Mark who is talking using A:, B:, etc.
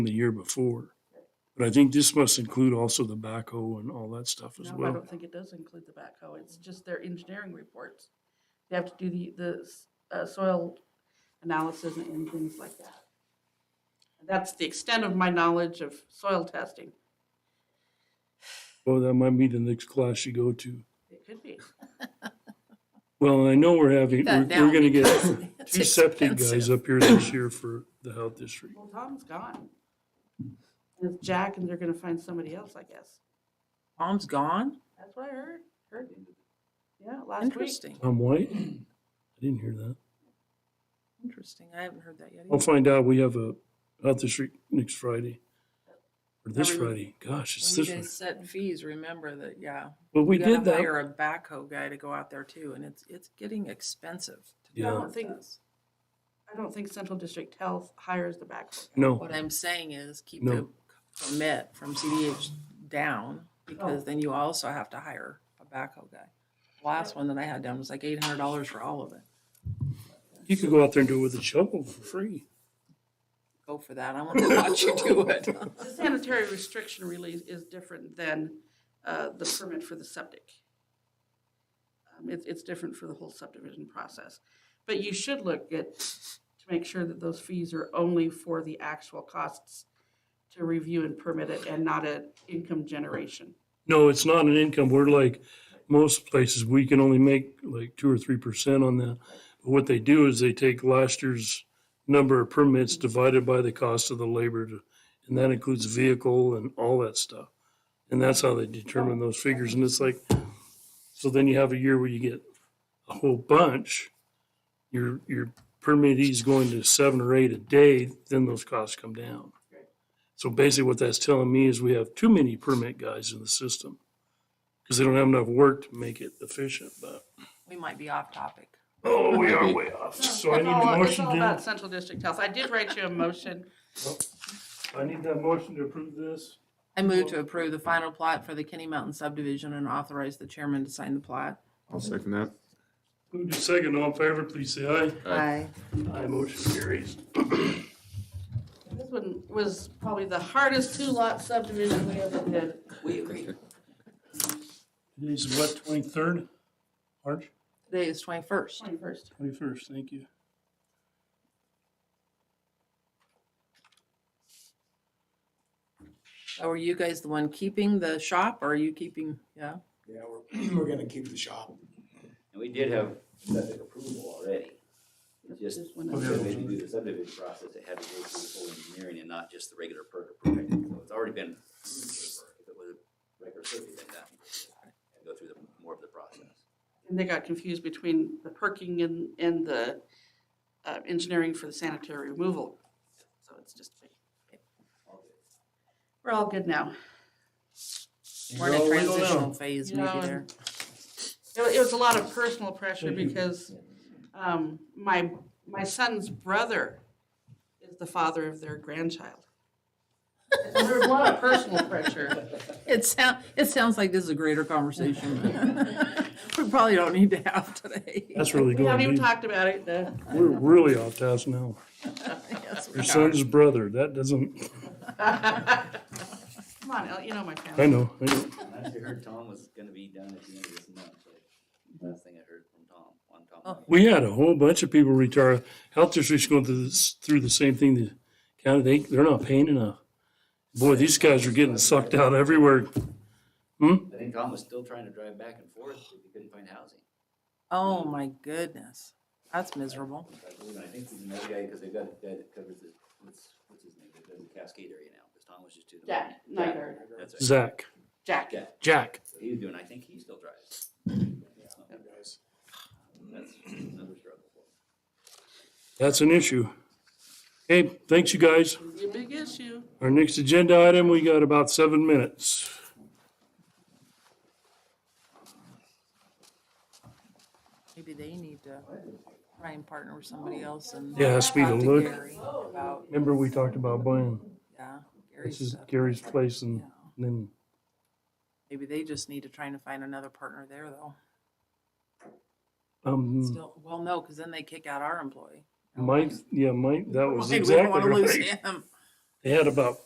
A: the year before. But I think this must include also the backhoe and all that stuff as
B: No, I
A: well.
B: don't think it does include the backhoe. It's just their engineering reports. They have to do the, the s- uh, soil analysis and things like that. That's the extent of my knowledge of soil testing.
A: Well, that might be the next class you go to.
B: It could be.
A: Well, I know we're having, we're,
C: That
A: we're
C: down
A: gonna get
C: because it's
A: two septic guys
C: expensive.
A: up here this year for the health district.
B: Well, Tom's gone. And it's Jack, and they're gonna find somebody else, I guess.
C: Tom's gone?
B: That's what I heard, heard. Yeah, last week.
C: Interesting,
A: Tom White? I didn't hear that.
C: interesting. I haven't heard that yet.
A: I'll
C: either.
A: find out. We have a health district next Friday. Or this
C: Every-
A: Friday. Gosh, it's
C: When
A: this
C: you
A: one.
C: guys set fees, remember that, yeah.
A: But we
C: you gotta
A: did that.
C: Hire a backhoe guy to go out there too, and it's, it's getting expensive. to do
A: Yeah. I
B: don't
C: all
B: think-
C: this.
B: I don't think Central District Health hires the backhoe. guy.
A: No,
C: What I'm saying is keep
A: No.
C: the permit from CDH down because then you also have to hire a backhoe guy. Last one that I had done was like eight hundred dollars for all of it.
A: you could go out there and do it with a shovel for free.
C: Go for that. I want to watch you do it.
B: The sanitary restriction release is different than uh, the permit for the septic. Um, It's, it's different for the whole subdivision process. But you should look at, to make sure that those fees are only for the actual costs to review and permit it and not an income generation.
A: No, it's not an income. We're like most places, we can only make like two or three percent on that. But what they do is they take last year's number of permits divided by the cost of the labor to, and that includes vehicle and all that stuff. And that's how they determine those figures. And it's like, so then you have a year where you get a whole bunch. Your, your permittee's going to seven or eight a day, then those costs come down. So basically what that's telling me is we have too many permit guys in the system. Cause they don't have enough work to make it efficient, but,
C: We might be off topic.
A: oh, we are way off. So I need
B: It's
A: a
B: all- It's
A: motion
B: all about
A: to,
B: Central District Health. I did write you a motion.
A: I need that motion to approve this.
C: I move to approve the final plot for the Kenny Mountain subdivision and authorize the chairman to sign the plot.
D: I'll second that.
A: Move to second, all in favor, please say aye.
C: Aye.
A: Aye, motion carries.
B: This one was probably the hardest two-lot subdivision we ever did. We agree.
A: Today's what, twenty-third? March?
C: Today is twenty-first.
B: Twenty-first.
A: Twenty-first, thank you.
C: So are you guys the one keeping the shop or are you keeping, yeah?
E: Yeah, we're, we're gonna keep the shop.
F: And we did have septic approval already. It Just,
B: This one.
F: when they do the subdivision process, it had to go through the full engineering and not just the regular perk approval. So it's already been, approved for a perk. if it was a regular survey, then that, and go through the, more of the process.
B: And they got confused between the perking and, and the uh, engineering for the sanitary removal. So it's just, we're all good now.
C: We're in
A: Well,
C: a
A: we don't
C: transitional
A: know.
C: phase
B: You
C: maybe
B: know, and
C: there.
B: It wa- it was a lot of personal pressure
A: Thank you.
B: because um, my, my son's brother is the father of their grandchild. So There was a lot of personal pressure.
C: It sound, it sounds like this is a greater conversation. We probably don't need to have today.
A: That's really
B: We
A: good.
B: haven't even
A: We-
B: talked about it. uh,
A: We're really off task now.
C: Yes, we
A: Your
C: are.
A: son's brother, that doesn't,
B: Come on, El- you know my family.
A: I know, I know.
F: I actually heard Tom was gonna be done at the end of this month, but last thing I heard from Tom, one Tom.
A: We had a whole bunch of people retire. Health districts going through this, through the same thing. The county, they, they're not paying enough. Boy, these guys are getting sucked out everywhere.
F: I think Tom was still trying to drive back and forth because he couldn't find housing.
C: Oh, my goodness. That's miserable.
F: I believe, and I think he's another guy, because they've got a guy that covers the, what's, what's his name, that does the Cascade area now, because Tom was just doing. the-
B: Jack Nygaard.
F: That's right,
A: Zach,
B: Jack.
F: Jack,
A: Jack.
F: so he was doing, I think he still drives. So,
E: Guys.
F: That's another struggle for him.
A: That's an issue. Hey, thanks you guys.
B: It's a big issue.
A: Our next agenda item, we got about seven minutes.
C: Maybe they need to try and partner with somebody else and.
A: Yeah, it has to be the
C: talk to
A: look.
C: Gary About,
A: Remember, we talked about buying,
C: yeah, Gary's
A: this is
C: stuff.
A: Gary's place and
C: Yeah.
A: then,
C: Maybe they just need to try and find another partner there though.
A: um,
C: Still, well, no, because then they kick out our employee.
A: Mike, yeah, Mike, that was
C: Why do we
A: exactly
C: wanna lose
A: right.
C: him?
A: They had about